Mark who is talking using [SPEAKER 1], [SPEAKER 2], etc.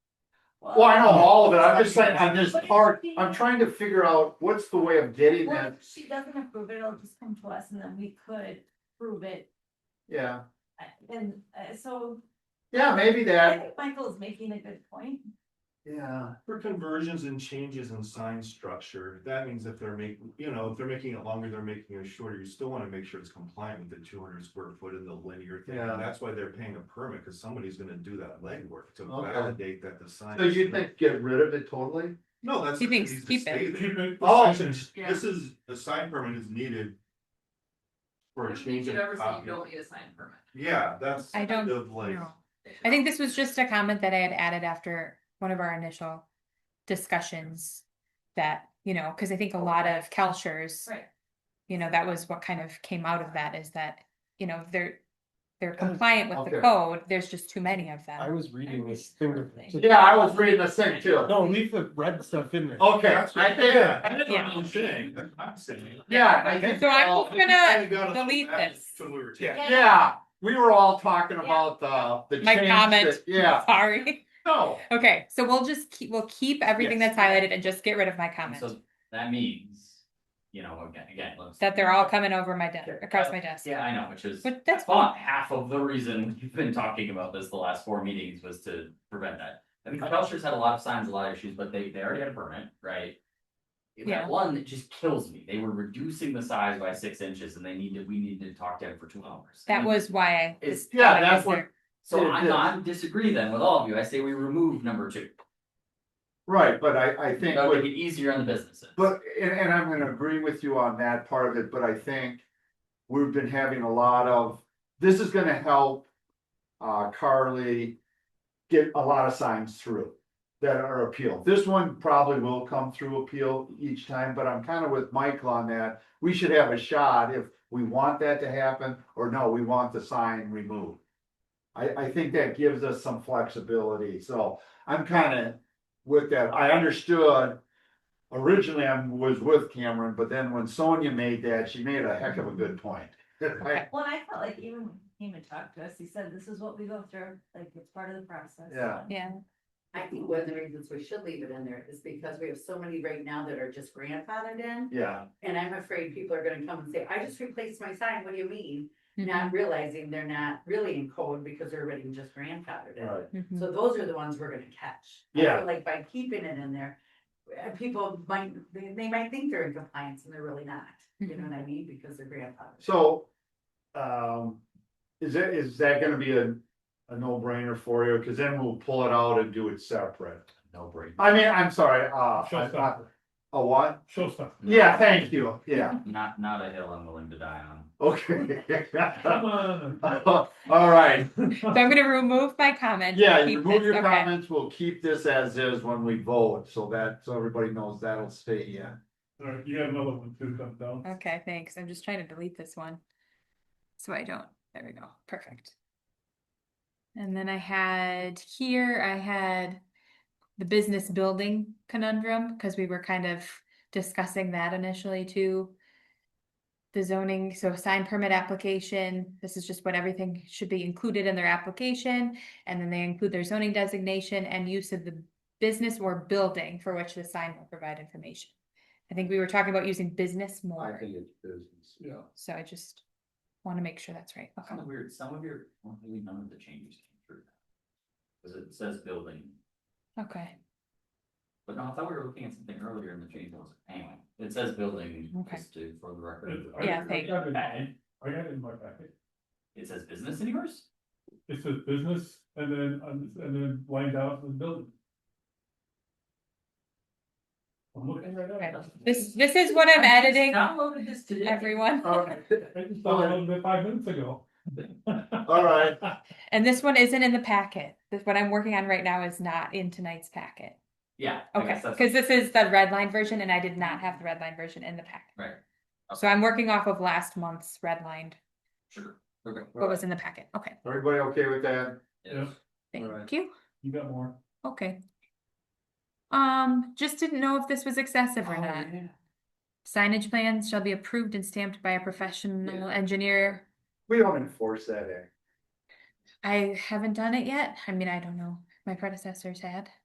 [SPEAKER 1] Well, I know all of it, I'm just saying,
[SPEAKER 2] Well,
[SPEAKER 1] I'm just hard, I'm trying to figure out what's the way of getting
[SPEAKER 2] if
[SPEAKER 1] that,
[SPEAKER 2] she doesn't approve it, it'll just come to us and then we could prove it,
[SPEAKER 1] yeah,
[SPEAKER 2] uh, and, uh, so.
[SPEAKER 1] yeah, maybe
[SPEAKER 2] I
[SPEAKER 1] that,
[SPEAKER 2] think Michael's making a good point.
[SPEAKER 1] yeah.
[SPEAKER 3] For conversions and changes in sign structure, that means if they're making, you know, if they're making it longer, they're making it shorter, you still wanna make sure it's compliant with the two hundred square foot and the linear thing.
[SPEAKER 1] Yeah.
[SPEAKER 3] And that's why they're paying a permit, cause somebody's gonna do that legwork to
[SPEAKER 1] Okay.
[SPEAKER 3] validate that the sign.
[SPEAKER 1] So
[SPEAKER 3] is-
[SPEAKER 1] you think get rid of it totally?
[SPEAKER 3] No, that's.
[SPEAKER 4] He thinks
[SPEAKER 3] needs to
[SPEAKER 4] keep it.
[SPEAKER 3] stay there.
[SPEAKER 1] Oh.
[SPEAKER 3] This is, a sign permit is needed. For a
[SPEAKER 5] If you
[SPEAKER 3] change.
[SPEAKER 5] should
[SPEAKER 3] in
[SPEAKER 5] ever say you
[SPEAKER 3] copy.
[SPEAKER 5] don't need a sign permit.
[SPEAKER 3] Yeah, that's.
[SPEAKER 4] I
[SPEAKER 3] kind
[SPEAKER 4] don't
[SPEAKER 3] of like-
[SPEAKER 4] know. I think this was just a comment that I had added after one of our initial discussions. That, you know, because I think a lot of Kelchers,
[SPEAKER 2] Right.
[SPEAKER 4] you know, that was what kind of came out of that is that, you know, they're. They're compliant with the
[SPEAKER 1] Oh, Okay.
[SPEAKER 4] code, there's just too many of
[SPEAKER 6] I
[SPEAKER 4] them.
[SPEAKER 6] was reading this
[SPEAKER 2] reading
[SPEAKER 6] thing.
[SPEAKER 2] the
[SPEAKER 1] Yeah, I was reading the same too.
[SPEAKER 6] No, leave the red stuff in there.
[SPEAKER 1] Okay, I
[SPEAKER 3] Yeah,
[SPEAKER 1] think,
[SPEAKER 3] that's what
[SPEAKER 4] Yeah.
[SPEAKER 3] I'm saying, that's what I'm saying.
[SPEAKER 1] yeah, I think.
[SPEAKER 4] So I'm
[SPEAKER 1] all-
[SPEAKER 4] just gonna
[SPEAKER 3] Kinda got us
[SPEAKER 4] delete
[SPEAKER 3] back
[SPEAKER 4] this.
[SPEAKER 3] When we were.
[SPEAKER 6] Yeah.
[SPEAKER 1] Yeah, we were all talking about uh, the, the
[SPEAKER 4] My
[SPEAKER 1] change
[SPEAKER 4] comment,
[SPEAKER 1] that- Yeah,
[SPEAKER 4] sorry.
[SPEAKER 1] no,
[SPEAKER 4] Okay, so we'll just keep, we'll keep everything that's highlighted and just get rid of my
[SPEAKER 7] And
[SPEAKER 4] comment.
[SPEAKER 7] so that means, you know, again, again. let's-
[SPEAKER 4] That they're all coming over my desk, across my desk.
[SPEAKER 7] Yeah, I know, which is
[SPEAKER 4] But that's
[SPEAKER 7] about half of the reason we've been talking about this the last four meetings was to prevent that. I mean, Belcher's had a lot of signs, a lot of issues, but they, they already had a permit, right?
[SPEAKER 4] Yeah.
[SPEAKER 7] That one that just kills me. They were reducing the size by six inches and they needed, we needed to talk to him for two hours.
[SPEAKER 4] That was why I.
[SPEAKER 7] It's-
[SPEAKER 4] this-
[SPEAKER 1] yeah,
[SPEAKER 4] why I
[SPEAKER 1] that's
[SPEAKER 4] was
[SPEAKER 1] what-
[SPEAKER 4] there.
[SPEAKER 7] So
[SPEAKER 1] it
[SPEAKER 7] I'm
[SPEAKER 1] is.
[SPEAKER 7] not disagree then with all of you. I say we remove number two.
[SPEAKER 1] right, but I, I think
[SPEAKER 7] That would
[SPEAKER 1] what
[SPEAKER 7] make it easier on the businesses.
[SPEAKER 1] But, and, and I'm gonna agree with you on that part of it, but I think we've been having a lot of, this is gonna help uh, Carly get a lot of signs through that are appealed. This one probably will come through appeal each time, but I'm kind of with Michael on that. We should have a shot if we want that to happen, or no, we want the sign removed. I, I think that gives us some flexibility, so I'm kind of with that. I understood originally I was with Cameron, but then when Sonia made that, she made a heck of a good point. I-
[SPEAKER 2] Well, I felt like even when he came and talked to us, he said, this is what we go through, like, it's part of the process.
[SPEAKER 1] Yeah.
[SPEAKER 4] Yeah.
[SPEAKER 8] I think one of the reasons we should leave it in there is because we have so many right now that are just grandfathered in.
[SPEAKER 1] Yeah,
[SPEAKER 8] And I'm afraid people are gonna come and say, I just replaced my sign, what do you mean?
[SPEAKER 4] Mhm,
[SPEAKER 8] Not realizing they're not really in code because they're already just grandfathered in.
[SPEAKER 1] right.
[SPEAKER 4] mhm.
[SPEAKER 8] So those are the ones we're gonna catch. I
[SPEAKER 1] Yeah.
[SPEAKER 8] feel Like by keeping it in there, uh, people might, they, they might think they're in compliance and they're really not. You know what I mean? Because they're grandfathered.
[SPEAKER 1] So, um, is that, is that gonna be a, a no brainer for you? Cause then we'll pull it out and do it separate.
[SPEAKER 7] No break.
[SPEAKER 1] I mean, I'm sorry, uh, I- I- a what?
[SPEAKER 6] Showstopper.
[SPEAKER 1] Yeah, thank you, yeah,
[SPEAKER 7] Not, not a hill I'm willing to die on.
[SPEAKER 1] okay.
[SPEAKER 6] on.
[SPEAKER 1] All right,
[SPEAKER 4] So I'm gonna remove my comment.
[SPEAKER 1] yeah,
[SPEAKER 4] keep
[SPEAKER 1] remove
[SPEAKER 4] this-
[SPEAKER 1] your
[SPEAKER 4] okay.
[SPEAKER 1] comments, we'll keep this as is when we vote, so that, so everybody knows that'll stay in.
[SPEAKER 6] Alright, you got another one too, come down.
[SPEAKER 4] Okay, thanks. I'm just trying to delete this one. So I don't, there we go, perfect. And then I had here, I had the business building conundrum, because we were kind of discussing that initially too. The zoning, so sign permit application, this is just what everything should be included in their application. And then they include their zoning designation and use of the business or building for which the sign will provide information. I think we were talking about using business more.
[SPEAKER 1] it's business, yeah.
[SPEAKER 4] So I just want to make sure that's right. Okay.
[SPEAKER 7] Kind of weird, some of your, well, really none of the changes came through. Cause it says building,
[SPEAKER 4] Okay.
[SPEAKER 7] but no, I thought we were looking at something earlier in the change was, anyway, it says building,
[SPEAKER 4] Okay.
[SPEAKER 7] just to, for the record.
[SPEAKER 4] Yeah, thank-
[SPEAKER 6] I got it
[SPEAKER 7] Okay.
[SPEAKER 6] I got it in my packet.
[SPEAKER 7] It says business in yours?
[SPEAKER 6] It says business and then, um, and then wind down to the building. I'm looking right at it.
[SPEAKER 4] This, this Oh, is what I'm
[SPEAKER 7] I just
[SPEAKER 4] editing,
[SPEAKER 7] Downloaded this today.
[SPEAKER 4] everyone.
[SPEAKER 6] I just saw it a little bit five minutes ago.
[SPEAKER 1] All right,
[SPEAKER 4] And this one isn't in the packet. This, what I'm working on right now is not in tonight's packet.
[SPEAKER 7] Yeah. I
[SPEAKER 4] Okay,
[SPEAKER 7] guess that's-
[SPEAKER 4] because this is the red line version and I did not have the red line version in the packet.
[SPEAKER 7] Right,
[SPEAKER 4] So I'm working off of last month's red line,
[SPEAKER 7] sure, okay.
[SPEAKER 4] what was in the packet. Okay,
[SPEAKER 1] everybody okay with that?
[SPEAKER 6] Yeah.
[SPEAKER 4] thank
[SPEAKER 1] Alright.
[SPEAKER 4] you.
[SPEAKER 6] You got more?
[SPEAKER 4] Okay. Um, just didn't know if this was excessive or not. Signage plans shall be approved and stamped by a professional engineer.
[SPEAKER 1] We don't enforce that act.
[SPEAKER 4] I haven't done it yet. I mean, I don't know. My predecessors had.